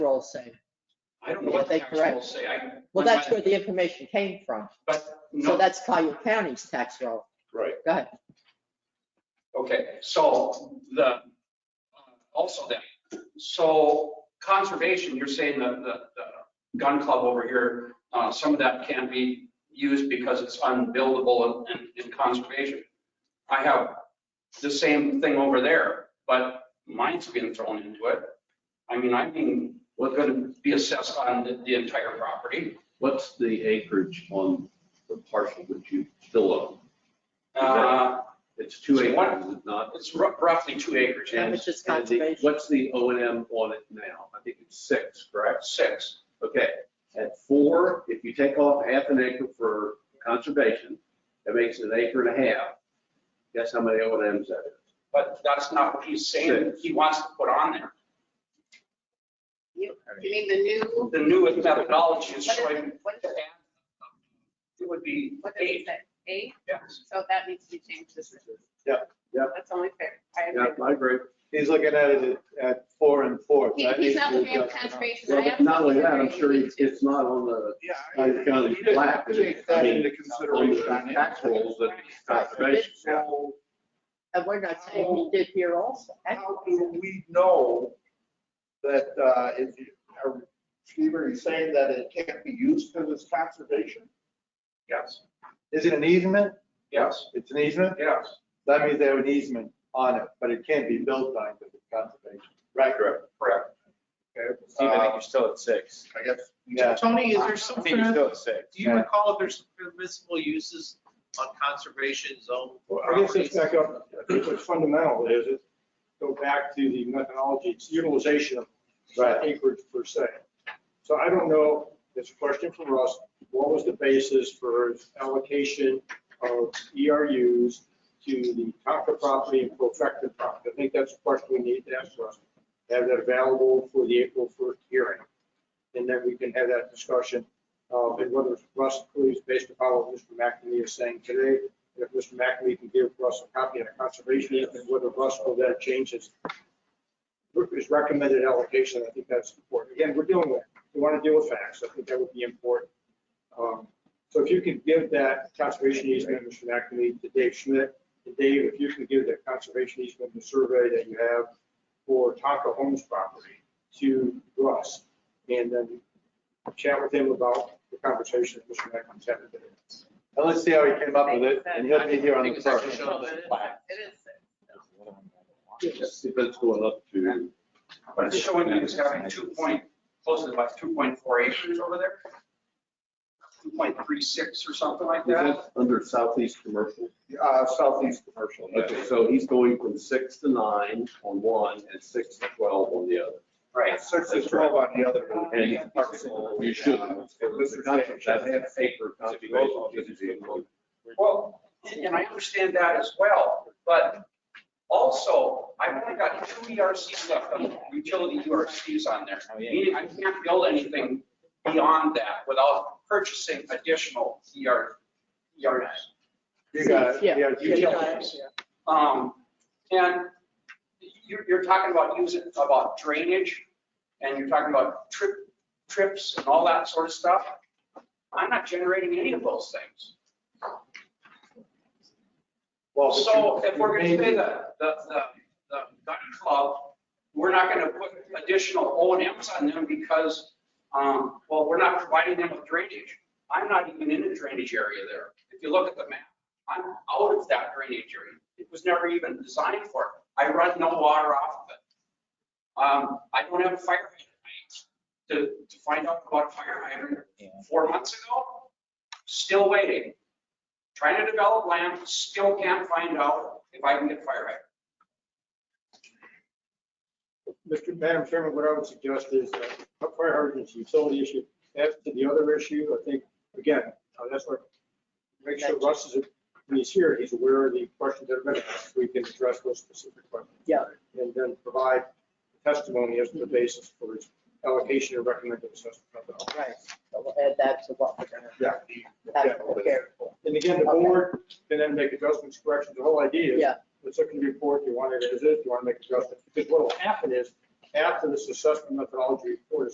rolls say. I don't know What what the they tax rolls correct. say. I- Well, that's where the information came from. But, So no, that's Collier County's tax roll. right. Go ahead. Okay, so the, uh, also that, so conservation, you're saying the, the, the gun club over here, uh, some of that can't be used because it's unbuildable in, in- in conservation. I have the same thing over there, but mine's being thrown into it. I mean, I mean, we're gonna be assessed on the, the entire property. What's the acreage on the parcel that you still own? Uh, It's two So what- acres, is it not? it's rou- roughly two acres, How yeah, much is And the- conservation? What's the O and M on it now? I think it's six, correct? six. Okay, at four, if you take off half an acre for conservation, that makes it an acre and a half. Guess how many O and Ms that is? But that's not what he's saying he wants to put on there. You you mean the new, The newest methodology is What is it? trying What is to add. It would be what did it eight, say? Eight? yes. So that needs to be changed to six. Yeah, yeah. That's only fair. I Yeah, agree. I agree. He's looking at it at four and four. He- That He's needs not to looking at adjust. conservation. Well, I but not only that, I'm absolutely sure agree. it's it's not on the, Yeah. I- Tyler County you didn't flat, but Take it- I that mean, into on the consideration. tax rolls that it's Right, so conservation. this Yeah. So And we're not saying he did here also. How do we know that, uh, if you, are, Steve, are you saying that it can't be used because it's conservation? Yes, Is it an easement? yes, It's an easement? yes. That means they have an easement on it, but it can't be built on because it's conservation. Right, correct. Correct. Steve, Uh, I think you're still at six. I guess, Uh, yeah. Tony, is there I something, think you're do still at six. you recall if there's permissible uses on conservation zone Well, I guess properties? it's back up, I think what's fundamental is it, go back to the methodology, it's utilization of Right. acreage per se. So I don't know, it's a question for Russ, what was the basis for allocation of ERUs to the Tonka property and Profecta property? I think that's a question we need to ask Russ, have that available for the April 1st hearing. And then we can have that discussion, uh, and whether Russ please, based upon what Mr. McNamee is saying today, and if Mr. McNamee can give Russ a copy of the conservation easement, whether Russ will then change his, his recommended allocation, I think that's important. Again, we're dealing with, we want to deal with facts, I think that would be important. Um, So if you could give that conservation easement, Mr. McNamee, to Dave Schmidt, and Dave, if you can give that conservation easement, the survey that you have for Tonka Homes property to Russ, and then chat with him about the conversation that Mr. McNamee's having today. And let's see how he came up with it, and he'll be here on the first. It is six. Yes, if it's going up to. But it's showing that it's having two point, close to like two point four acres over there. Two point three six or something like Is that. that under southeast commercial? Uh, Southeast Commercial. Okay, so he's going from six to nine on one and six to 12 on the other. Right. Six to 12 on the other. And you should, that half acre conservation. Well, and and I understand that as well, but also, I've only got two ERCs left, on utility ERCs on there. Meaning I can't build anything beyond that without purchasing additional ER, ERs. You got it. Yeah. Yeah, Yeah, you you got got it. it. Um, and you're, you're talking about using, about drainage, and you're talking about trip, trips and all that sort of stuff. I'm not generating any of those things. Well, but So you- if we're you gonna may say be- the, the, the, the gun club, we're not gonna put additional O and Ms on them because, um, well, we're not providing them with drainage. I'm not even in a drainage area there. If you look at the map, I'm out of that drainage area. It was never even designed for it. I run no water off of it. Um, I don't have a fire hydrant. To, to find out about a fire hydrant four months ago, still waiting trying to develop land, still can't find out if I can get fire hydrant. Mr. Madam Chairman, what I would suggest is that fire hydrants, utility issue, as to the other issue, I think, again, uh, that's what, make sure Russ is, when he's here, he's aware of the questions that are been asked. We can address those specific questions. Yeah. And then provide testimony as to the basis for his allocation or recommended assessment. Right. So we'll add that to what we're gonna, Yeah. that's what we're here for. And again, the board can then make adjustments, corrections, the whole idea is, Yeah. let's look at the report, you want it as is, you want to make adjustments. Because what will happen is, after this assessment methodology report is